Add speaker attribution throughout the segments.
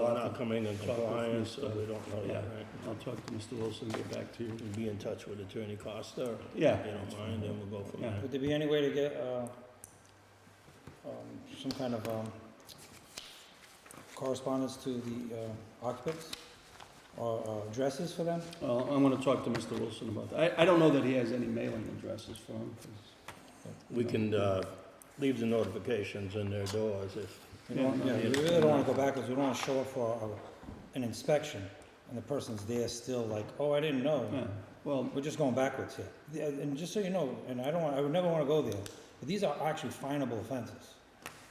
Speaker 1: we're
Speaker 2: I'll
Speaker 1: not
Speaker 2: talk-
Speaker 1: coming in
Speaker 2: I'll talk with
Speaker 1: compliance, so
Speaker 2: Mr.
Speaker 1: we don't know yet, right?
Speaker 2: I'll talk to Mr. Wilson, and get back to you.
Speaker 1: We'll be in touch with Attorney Costa, if
Speaker 2: Yeah.
Speaker 1: they don't mind, and we'll go from
Speaker 2: Yeah.
Speaker 1: there.
Speaker 3: Would there be any way to get, uh, um, some kind of, um, correspondence to the uh, occupants? Or uh, addresses for them?
Speaker 2: Well, I'm gonna talk to Mr. Wilson about that. I, I don't know that he has any mailing addresses for him. 'cause-
Speaker 1: We can, uh, leave the notifications in their doors if,
Speaker 3: You don't-
Speaker 2: Yeah,
Speaker 3: Yeah,
Speaker 2: no,
Speaker 3: we
Speaker 1: it's-
Speaker 3: really don't wanna go backwards, we don't wanna show up for a- an inspection, and the person's there still like, oh, I didn't know.
Speaker 2: Yeah, well,
Speaker 3: We're just going backwards here. Yeah, And just so you know, and I don't want, I would never wanna go there, but these are actually finable offenses.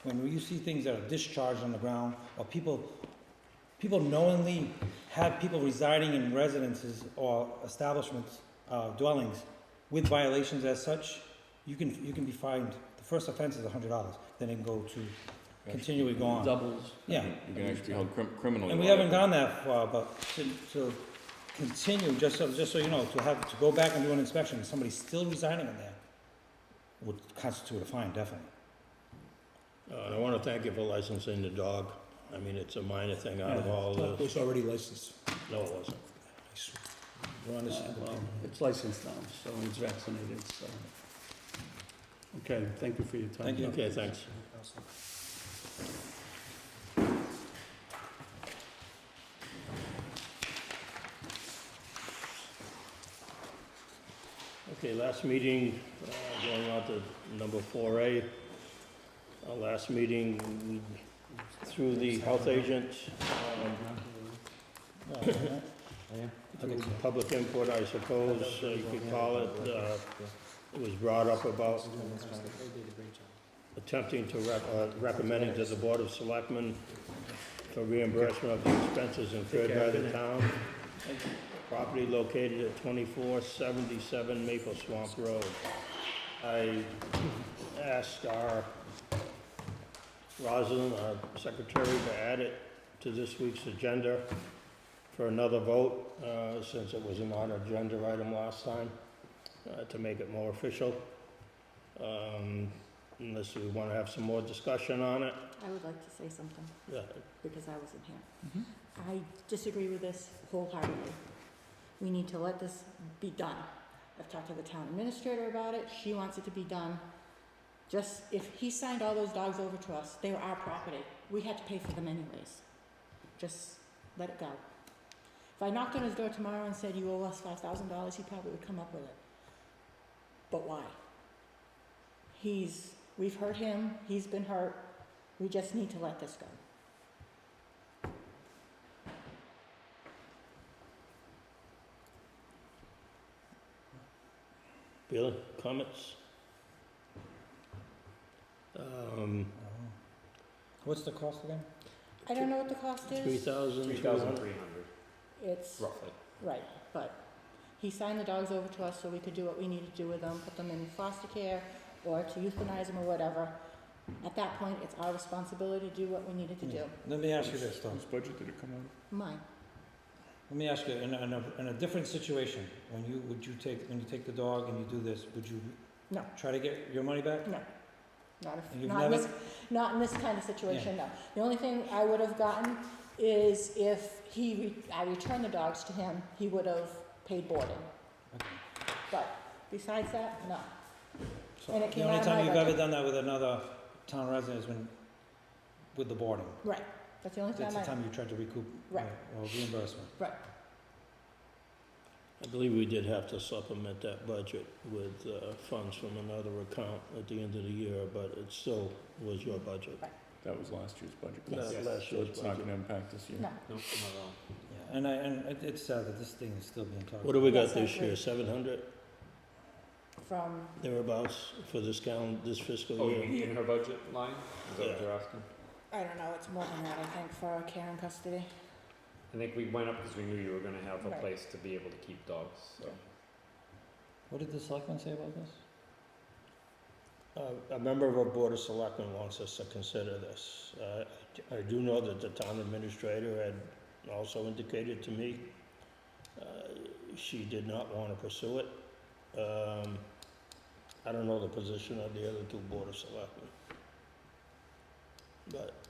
Speaker 3: When you see things that are discharged on the ground, or people, people knowingly have people residing in residences or establishments, uh, dwellings with violations as such, you can, you can be fined, the first offense is a hundred dollars, then it can go to, continually go on.
Speaker 2: doubles.
Speaker 3: Yeah,
Speaker 4: You can actually be held crim- criminally.
Speaker 3: and we haven't gone that far, but to, to continue, just so, just so you know, to have, to go back and do an inspection, and somebody's still residing in there, would constitute a fine, definitely.
Speaker 1: uh, I wanna thank you for licensing the dog. I mean, it's a minor thing out of
Speaker 2: Yeah.
Speaker 1: all
Speaker 5: It
Speaker 1: this.
Speaker 5: was already licensed.
Speaker 1: No, it wasn't.
Speaker 5: We're on this-
Speaker 2: Uh, well, It's licensed now, so he's vaccinated, so. Okay, thank you for your time.
Speaker 3: Thank you.
Speaker 1: Okay, thanks. Okay, last meeting, uh, going on to number four A. Our last meeting, we- through the health agent,
Speaker 4: Oh,
Speaker 1: um, uh, through public input, I suppose, uh, you could call it, uh, it was brought up about attempting to, rec- uh, recommending to the Board of Selectmen for reimbursement of the expenses incurred by the town. Property located at twenty-four seventy-seven Maple Swamp Road. I asked our Rosalind, our secretary, to add it to this week's agenda for another vote, uh, since it was an on-agenda item last time, uh, to make it more official. Um, unless we want to have some more discussion on it.
Speaker 6: I would like to say something,
Speaker 1: Yeah,
Speaker 6: because I wasn't here.
Speaker 3: Mm-hmm.
Speaker 6: I disagree with this wholeheartedly. We need to let this be done. I've talked to the town administrator about it, she wants it to be done. Just, if he signed all those dogs over to us, they were our property, we had to pay for them anyways. Just let it go. If I knocked on his door tomorrow and said, you owe us five thousand dollars, he probably would come up with it. But why? He's, we've hurt him, he's been hurt, we just need to let this go.
Speaker 1: Bill, comments? Um,
Speaker 3: What's the cost again?
Speaker 6: I don't know what the cost
Speaker 1: three
Speaker 6: is.
Speaker 1: thousand two hundred.
Speaker 6: It's,
Speaker 4: Roughly.
Speaker 6: right, but he signed the dogs over to us so we could do what we needed to do with them, put them in foster care or to euthanize them or whatever. At that point, it's our responsibility to do what we needed to do.
Speaker 3: Let me ask you this, though.
Speaker 4: budget did it come out
Speaker 6: Mine,
Speaker 3: Let me ask you, in a, in a, in a different situation, when you, would you take, when you take the dog and you do this, would you?
Speaker 6: No.
Speaker 3: Try to get your money back?
Speaker 6: not
Speaker 3: And
Speaker 6: if,
Speaker 3: you've
Speaker 6: not in this,
Speaker 3: never-
Speaker 6: not in this kind of situation, no. The only thing I would have gotten is if he, re- I returned the dogs to him, he would have paid boarding.
Speaker 3: Okay.
Speaker 6: But besides that, no.
Speaker 3: So
Speaker 6: And it came out of
Speaker 3: The
Speaker 6: my
Speaker 3: only time you've ever
Speaker 6: budget.
Speaker 3: done that with another town resident is when, with the boarding.
Speaker 6: Right, that's the only
Speaker 3: That's
Speaker 6: time
Speaker 3: the
Speaker 6: I,
Speaker 3: time you tried to recoup uh,
Speaker 6: Right.
Speaker 3: or reimbursement.
Speaker 1: I believe we did have to supplement that budget with, uh, funds from another account at the end of the year, but it still was your budget.
Speaker 4: That was last year's budget.
Speaker 1: That's Yes. last
Speaker 4: So
Speaker 1: year's
Speaker 4: It's not
Speaker 1: budget.
Speaker 4: gonna impact this year.
Speaker 6: no.
Speaker 3: Yeah, And I, and it, it's sad that this thing is still being talked
Speaker 1: What do we got
Speaker 6: Yes, I
Speaker 1: this year,
Speaker 6: agree.
Speaker 1: seven hundred
Speaker 6: From
Speaker 1: thereabouts for this calendar, this fiscal
Speaker 4: Oh,
Speaker 1: year?
Speaker 4: in her budget line?
Speaker 1: Is that what you're
Speaker 4: asking?
Speaker 6: I don't know, it's more than that, I think, for care and custody.
Speaker 4: I think we went up because we knew you were gonna have
Speaker 6: a Right.
Speaker 4: place to be able to keep dogs, so.
Speaker 3: What did the selectmen say about this?
Speaker 1: Uh, A member of our Board of Selectmen wants us to consider this. Uh, I do know that the town administrator had also indicated to me uh, she did not want to pursue it. Um, I don't know the position of the other two Board of Selectmen. But